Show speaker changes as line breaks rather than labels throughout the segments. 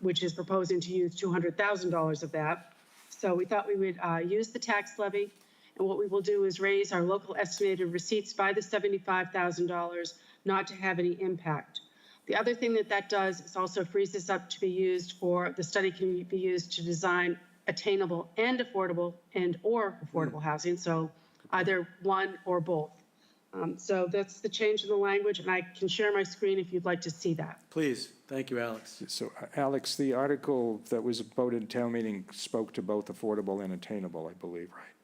which is proposing to use $200,000 of that. So we thought we would uh, use the tax levy, and what we will do is raise our local estimated receipts by the $75,000, not to have any impact. The other thing that that does is also frees this up to be used for, the study can be used to design attainable and affordable and/or affordable housing, so either one or both. Um, So that's the change in the language, and I can share my screen if you'd like to see that.
Please, thank you, Alex.
So uh, Alex, the article that was voted in town meeting spoke to both affordable and attainable, I believe, right?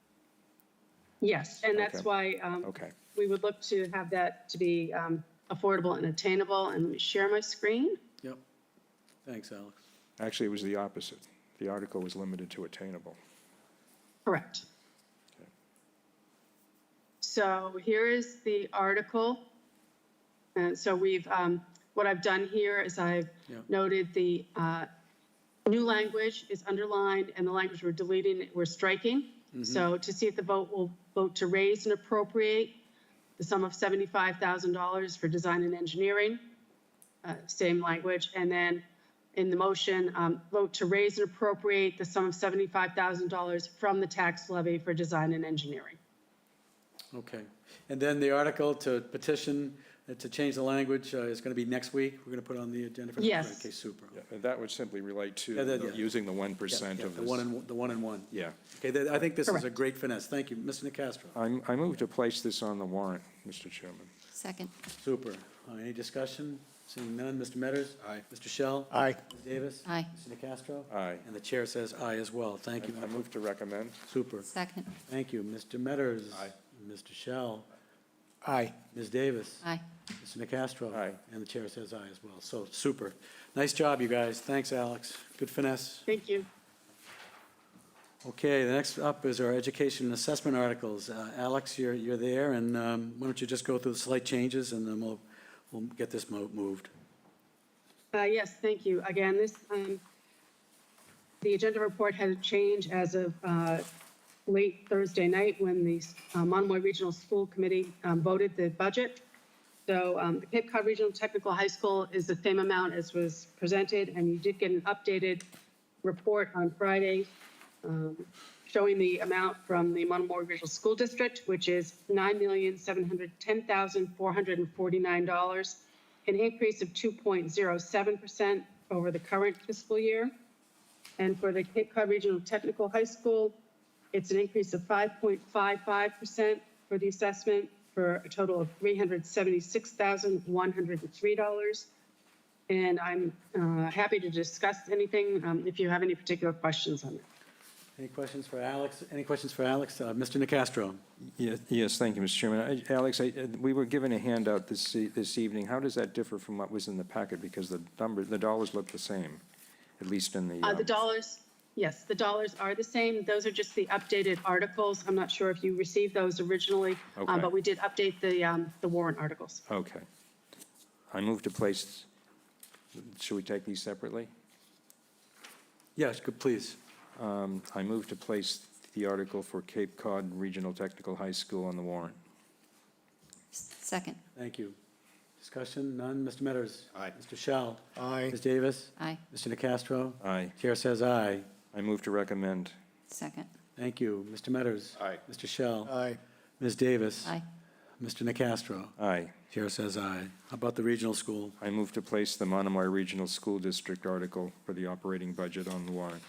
Yes, and that's
Okay.
why um,
Okay.
we would look to have that to be um, affordable and attainable. And let me share my screen.
Yep. Thanks, Alex.
Actually, it was the opposite. The article was limited to attainable.
Correct. So here is the article. And so we've, um, what I've done here is I've
Yeah.
noted the uh, new language is underlined and the language we're deleting, we're striking. So to see if the vote will vote to raise and appropriate the sum of $75,000 for design and engineering, uh, same language. And then in the motion, um, vote to raise and appropriate the sum of $75,000 from the tax levy for design and engineering.
Okay. And then the article to petition, uh, to change the language uh, is going to be next week. We're going to put on the agenda for next
Yes.
week. Okay, super.
Yeah, and That would simply relate
Yeah, that- yeah.
to using the 1%
Yeah,
of
The one
this.
and, the one and one.
Yeah.
Okay, that- I think this is a
Correct.
great finesse. Thank you, Mr. Nacastro.
I'm- I move to place this on the warrant, Mr. Chairman.
Second.
Super. Uh, Any discussion? Seeing none. Mr. Metters? Aye. Mr. Shell?
Aye.
Ms. Davis?
Aye.
Mr. Nacastro?
Aye.
And the chair says aye as well. Thank you.
I move to recommend.
Super.
Second.
Thank you. Mr. Metters?
Aye.
Mr. Shell?
Aye.
Ms. Davis?
Aye.
Mr. Nacastro?
Aye.
And the chair says aye as well. So, super. Nice job, you guys. Thanks, Alex. Good finesse.
Thank you.
Okay, the next up is our education and assessment articles. Uh, Alex, you're, you're there, and um, why don't you just go through the slight changes, and then we'll, we'll get this mo- moved.
Uh, Yes, thank you. Again, this, um, the agenda report had a change as of uh, late Thursday night when the uh, Monomoy Regional School Committee um, voted the budget. So um, the Cape Cod Regional Technical High School is the same amount as was presented, and you did get an updated report on Friday um, showing the amount from the Monomoy Regional School District, which is $9,710,449, an increase of 2.07% over the current fiscal year. And for the Cape Cod Regional Technical High School, it's an increase of 5.55% for the assessment for a total of $376,103. And I'm uh, happy to discuss anything um, if you have any particular questions on it.
Any questions for Alex? Any questions for Alex? Uh, Mr. Nacastro?
Yes, yes, thank you, Mr. Chairman. I- Alex, I- uh, we were given a handout this, e- this evening. How does that differ from what was in the packet? Because the number, the dollars look the same, at least in the.
Uh, The
um,
dollars, yes, the dollars are the same. Those are just the updated articles. I'm not sure if you received those originally, uh,
Okay.
but we did update the um, the warrant articles.
Okay. I move to place, should we take these separately?
Yes, good, please.
Um, I move to place the article for Cape Cod Regional Technical High School on the warrant.
Second.
Thank you. Discussion, none. Mr. Metters?
Aye.
Mr. Shell?
Aye.
Ms. Davis?
Aye.
Mr. Nacastro?
Aye.
Chair says aye.
I move to recommend.
Second.
Thank you. Mr. Metters?
Aye.
Mr. Shell?
Aye.
Ms. Davis?
Aye.
Mr. Nacastro?
Aye.
Chair says aye. How about the regional school?
I move to place the Monomoy Regional School District article for the operating budget on the warrant.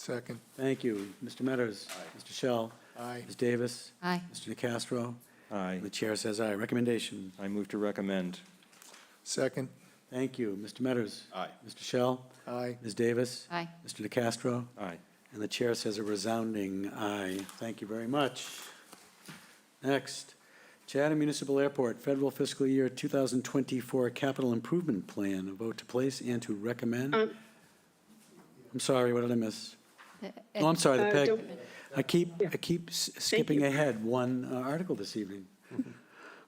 Second.
Thank you. Mr. Metters? Aye. Mr. Shell?
Aye.
Ms. Davis?
Aye.
Mr. Nacastro?
Aye.
The chair says aye. Recommendation?
I move to recommend.
Second.
Thank you. Mr. Metters?
Aye.
Mr. Shell?
Aye.
Ms. Davis?
Aye.
Mr. Nacastro?
Aye.
And the chair says a resounding aye. Thank you very much. Next, Chatham Municipal Airport, federal fiscal year 2024 capital improvement plan, a vote to place and to recommend.
Um,
I'm sorry, what did I miss?
The-
Oh, I'm sorry, the
Uh,
PEG.
don't-
I keep, I keep s- skipping
you.
ahead one uh, article this evening.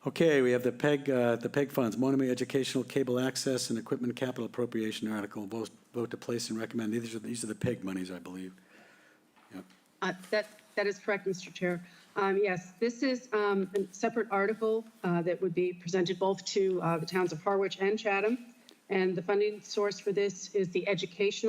Okay, we have the PEG, uh, the PEG funds, Monomoy Educational Cable Access and Equipment Capital Appropriation Article, vote, vote to place and recommend. These are, these are the PEG monies, I believe.
Uh, That, that is correct, Mr. Chair. Um, Yes, this is um, a separate article uh, that would be presented both to uh, the towns of Harwich and Chatham. And the funding source for this is the educational